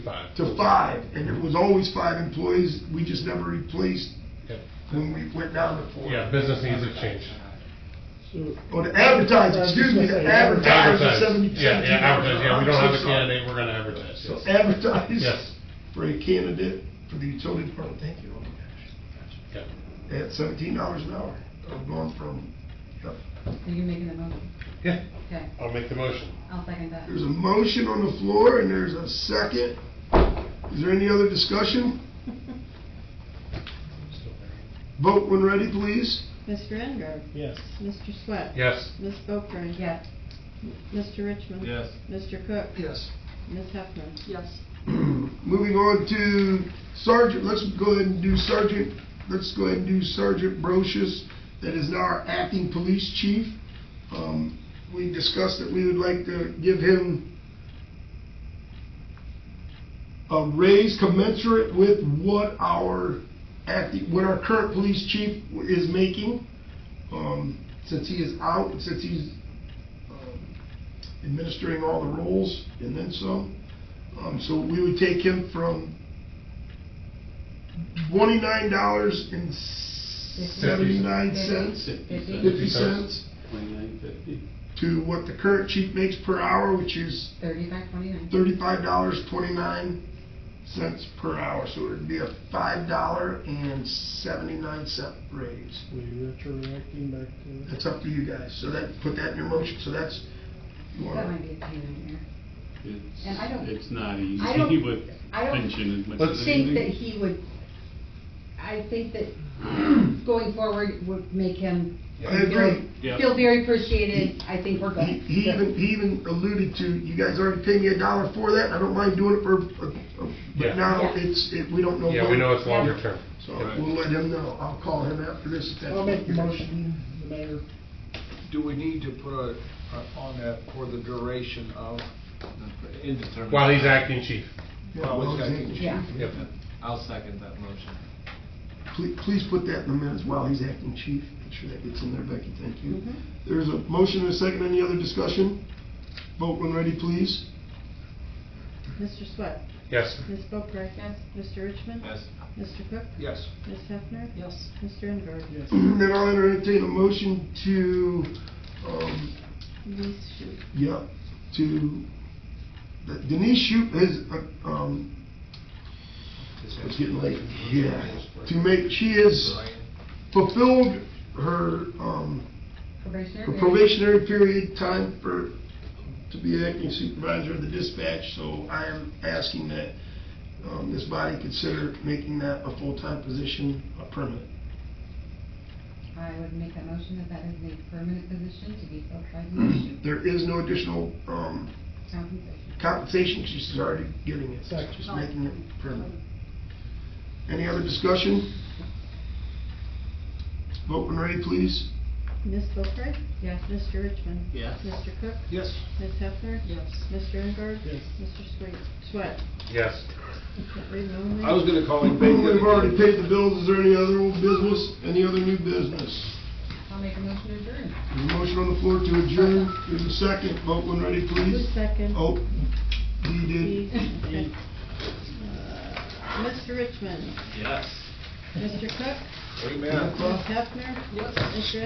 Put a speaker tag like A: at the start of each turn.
A: Five.
B: to five, and it was always five employees, we just never replaced
A: Yep.
B: when we went down to four.
A: Yeah, business needs have changed.
B: Or to advertise, excuse me, to advertise
A: Advertise.
B: the seventy
A: Yeah,
B: percent.
A: yeah, advertise, yeah, we don't have a candidate, we're gonna advertise,
B: So
A: yes.
B: advertise.
A: Yes,
B: For a candidate for the utility department, thank you, oh my gosh.
A: yeah.
B: At seventeen dollars an hour, I'm going from, yep.
C: Are you making the motion?
A: Yeah,
C: Okay,
A: I'll make the motion.
C: I'll second that.
B: There's a motion on the floor and there's a second. Is there any other discussion? Vote when ready, please.
D: Mr. Engard?
E: Yes.
D: Mr. Swett?
A: Yes,
D: Ms. Boeckrey?
C: Yes,
D: Mr. Richmond?
E: Yes.
D: Mr. Cook?
B: Yes.
D: Ms. Hefner?
F: Yes.
B: Moving on to Sergeant, let's go ahead and do Sergeant, let's go ahead and do Sergeant Brochus, that is now our acting police chief. Um, We discussed that we would like to give him a raise commensurate with what our acting, what our current police chief is making. Um, Since he is out, since he's um, administering all the roles and then some. Um, so we would take him from twenty-nine dollars and seventy-nine cents,
C: Fifty.
B: fifty cents,
E: Twenty-nine fifty.
B: to what the current chief makes per hour, which is
C: thirty-five twenty-nine.
B: thirty-five dollars twenty-nine cents per hour. So it'd be a five dollar and seventy-nine cent raise.
E: Will you retroacting back to?
B: That's up to you guys. So that, put that in your motion. So that's, you
C: That
B: wanna,
C: might be a pain in the ear.
E: It's-
C: And I don't-
E: It's not easy
C: I don't-
E: with
C: I don't
E: pension as much
A: Let's-
E: as
C: Think that
E: anything.
C: he would, I think that going forward would make him
B: I agree.
E: Yeah.
C: feel very appreciated. I think we're
B: He
C: good.
B: he even, he even alluded to, you guys already paid me a dollar for that, I don't mind doing it for, a- a-
A: Yeah.
B: but now
C: Yeah.
B: it's, it, we don't know.
A: yeah, we
B: when.
A: know it's longer term.
B: So we'll let him know, I'll call him after this. if that's
E: I'll make the
B: okay.
E: motion, the mayor.
G: Do we need to put a, a- on that for the duration of the indeterminate?
A: While he's acting chief.
B: Yeah, well,
G: Okay.
B: thank you.
C: Yeah.
A: Yep.
G: I'll second that motion.
B: Please, please put that in the minutes while he's acting chief, make sure that gets in there, Becky, thank you.
D: Mm-hmm.
B: There's a motion and a second, any other discussion? Vote when ready, please.
D: Mr. Swett?
A: Yes,
D: Ms. Boeckrey?
F: Yes.
D: Mr. Richmond?
G: Yes.
D: Mr. Cook?
G: Yes.
D: Ms. Hefner?
F: Yes.
D: Mr. Engard?
E: Yes.
B: Then I'll entertain a motion to, um,
D: Denise Shute?
B: Yeah, to, that Denise Shute has, uh, um, it's getting late, yeah, to make, she has fulfilled her, um, her
C: Probationary. period.
B: probationary period time for, to be acting supervisor of the dispatch, so I am asking that, um, this body consider making that a full-time position, a permanent.
C: I would make that motion that that is a permanent position to be filled by the issue.
B: There is no additional, um,
C: Compensation.
B: compensation, 'cause she's already getting it, so just making it permanent. Any other discussion? Vote when ready, please.
D: Ms. Boeckrey?
C: Yes.
D: Mr. Richmond?
E: Yes.
D: Mr. Cook?
G: Yes.
D: Ms. Hefner?
F: Yes.
D: Mr. Engard?
E: Yes.
D: Mr. Sweet? Swett?
A: yes.
D: Can't read my own
G: I was
D: name.
G: gonna call him Bacon.
B: We've already paid the bills, is there any other old business, any other new business?
C: I'll make a motion to adjourn.
B: There's a motion on the floor to adjourn, there's a second, vote when ready,
D: Who's
B: please.
D: second?
B: Oh, he did.
D: Okay. Uh, Mr. Richmond?
G: Yes.
D: Mr. Cook?
G: Amen.
D: Ms. Hefner?
F: Yes.
D: Mr.